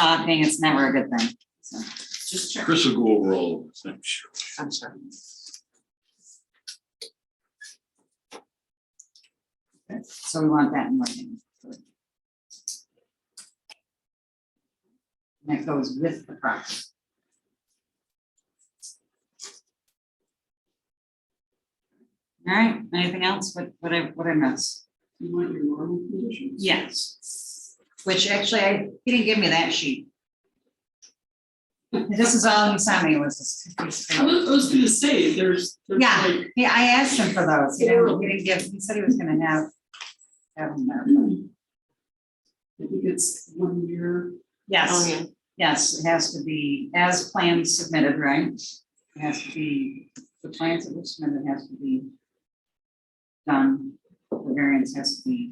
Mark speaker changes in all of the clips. Speaker 1: talking, it's never a good thing, so.
Speaker 2: Just check.
Speaker 3: Chris will go over all of this, I'm sure.
Speaker 2: I'm sorry.
Speaker 1: So we want that in writing. And that goes with the project. All right, anything else? What, what I, what I missed?
Speaker 2: You want your normal conditions?
Speaker 1: Yes. Which actually, I, he didn't give me that sheet. This is all he sent me was this.
Speaker 2: I was, I was gonna say, there's, there's
Speaker 1: Yeah.
Speaker 2: like,
Speaker 1: Yeah, I asked him for those, you know, he didn't give, he said he was gonna have. Have them there.
Speaker 2: I hmm. think it's one year.
Speaker 3: Oh,
Speaker 1: Yes. Oh,
Speaker 4: yeah.
Speaker 1: Yes, it has to be as planned submitted, right? It has to be, the plans that were submitted has to be done, the variance has to be,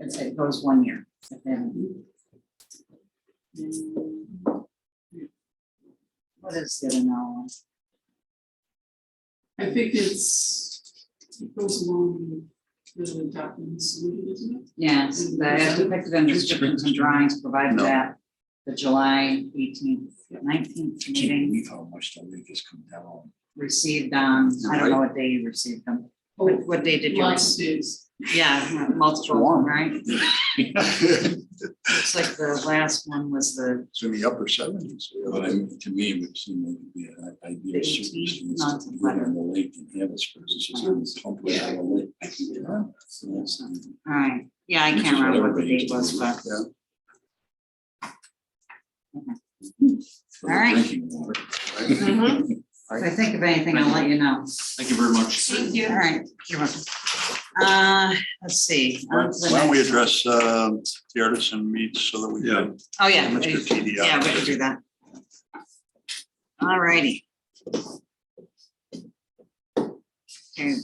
Speaker 1: it's- it goes one year. but then- hmm, What is the other now?
Speaker 2: I think it's, it goes along with the documents, isn't it?
Speaker 1: Yes, the as depicted in descriptions and drawings provided
Speaker 3: No.
Speaker 1: that the July eighteenth, nineteenth meeting
Speaker 3: How much the rate has come down.
Speaker 1: received on, I don't know what day you received them. What,
Speaker 2: Oh,
Speaker 1: what day did you?
Speaker 2: Lots of
Speaker 1: receive?
Speaker 2: days.
Speaker 1: Yeah, multiple,
Speaker 5: Warm.
Speaker 1: right?
Speaker 5: It's
Speaker 1: Looks like the last one was the
Speaker 5: in the upper seventies.
Speaker 3: But I, mean, to me, it would seem like it'd be an ideal
Speaker 1: Eighteen
Speaker 3: circumstance
Speaker 1: months
Speaker 3: to
Speaker 1: of
Speaker 3: live on the lake and have a spruce, it's just on the pump way out of the lake. So that's-
Speaker 1: All right, yeah, I
Speaker 3: Which
Speaker 1: can't
Speaker 3: is what
Speaker 1: remember what the
Speaker 3: everybody
Speaker 1: date was,
Speaker 3: used
Speaker 1: but,
Speaker 3: to do. For the
Speaker 1: All right.
Speaker 3: drinking water.
Speaker 4: Mhm.
Speaker 1: if I think of anything, I'll let you know.
Speaker 3: Thank you very much.
Speaker 1: Thank you. All right, you're welcome. Uh, let's see. Uh,
Speaker 5: Why
Speaker 1: on to the
Speaker 5: don't we
Speaker 1: next one.
Speaker 5: address um, the artisan meets so that we can,
Speaker 1: Oh, yeah.
Speaker 5: Mr.
Speaker 1: we-
Speaker 5: TDI.
Speaker 1: Yeah, we can do that. All righty. Okay,
Speaker 4: Can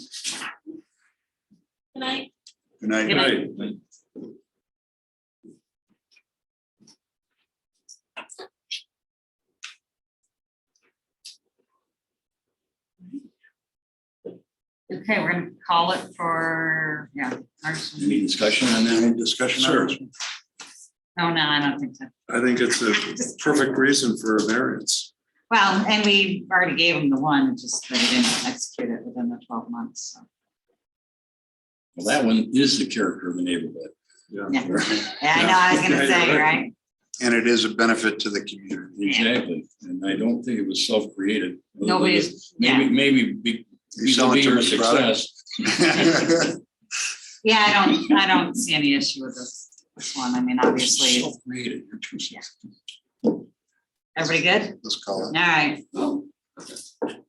Speaker 4: I
Speaker 5: good night.
Speaker 1: Good night. Okay, we're gonna call it for, yeah, ours.
Speaker 3: Any discussion on that?
Speaker 5: Any discussion?
Speaker 6: Sure.
Speaker 1: Oh, No, no, I don't think so.
Speaker 6: I think it's a perfect reason for a variance.
Speaker 1: Well, and we already gave them the one, it's just they didn't execute it within the twelve months, so.
Speaker 3: Well, that one is the character of the neighborhood.
Speaker 1: Yeah, Yeah, I know, I was gonna say, right?
Speaker 5: And it is a benefit to the community.
Speaker 3: Exactly, and I don't think it was self-created.
Speaker 1: Nobody's-
Speaker 3: Maybe, maybe be,
Speaker 5: You selling
Speaker 3: be
Speaker 5: too
Speaker 3: your
Speaker 5: much product?
Speaker 3: success.
Speaker 1: Yeah, I don't, I don't see any issue with this, this one, I mean, obviously,
Speaker 3: Self-created, you're too successful.
Speaker 1: everybody good?
Speaker 5: Let's call
Speaker 1: All
Speaker 5: it.
Speaker 1: right.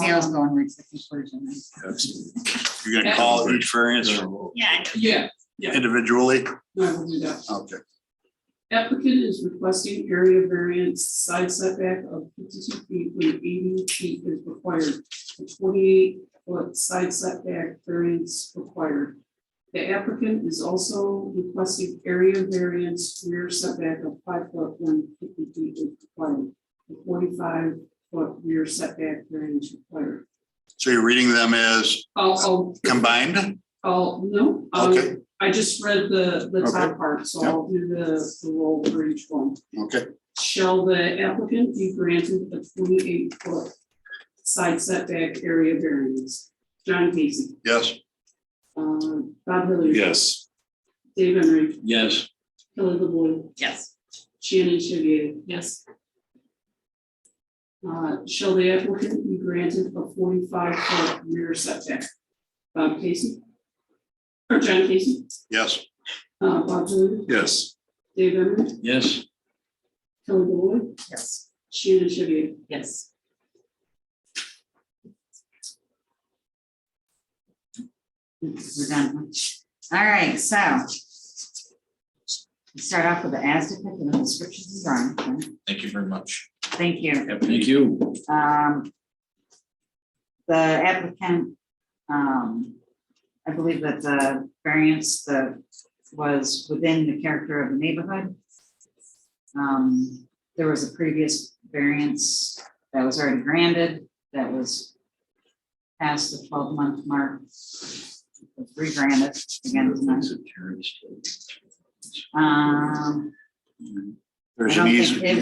Speaker 1: Sales going, reach the conclusion.
Speaker 3: Absolutely.
Speaker 5: You're gonna call each variance
Speaker 1: Yeah.
Speaker 2: Uh, Yeah,
Speaker 5: individually?
Speaker 2: no, I will do that.
Speaker 5: Okay.
Speaker 2: Applicant is requesting area variance side setback of fifty-two feet when eighty feet is required. A Twenty-eight foot side setback variance required. The applicant is also requesting area variance rear setback of five foot when fifty feet is required. A Forty-five foot rear setback variance required.
Speaker 5: So you're reading them as
Speaker 2: I'll, I'll,
Speaker 5: combined?
Speaker 2: I'll, no, um,
Speaker 5: Okay.
Speaker 2: I just read the, the top part, so I'll do the, the roll for each one.
Speaker 5: Okay.
Speaker 2: Shall the applicant be granted a twenty-eight foot side setback area variance? John Casey,
Speaker 5: Yes.
Speaker 2: um, Bob Hilliard.
Speaker 6: Yes.
Speaker 2: Dave Emery,
Speaker 3: Yes.
Speaker 2: Kelly LaVoy,
Speaker 1: Yes.
Speaker 2: Shannon Chauvier. Yes. Uh, shall the applicant be granted a forty-five foot rear setback? Bob Casey? Or John Casey,
Speaker 5: Yes.
Speaker 2: uh, Bob Hilliard,
Speaker 6: Yes.
Speaker 2: Dave Emery,
Speaker 3: Yes,
Speaker 2: Kelly LaVoy,
Speaker 1: Yes.
Speaker 2: Shannon Chauvier.
Speaker 1: Yes. We're done. All right, so. we Start off with the as depicted in the descriptions and drawings. right?
Speaker 3: thank you very much.
Speaker 1: Thank you.
Speaker 3: Thank you.
Speaker 1: Um, The applicant, um, I believe that the variance that was within the character of the neighborhood. Um, There was a previous variance that was already granted, that was past the twelve month mark. Re-granted again tonight. Um,
Speaker 5: there's
Speaker 1: I don't
Speaker 5: an
Speaker 1: think
Speaker 5: easement.
Speaker 1: it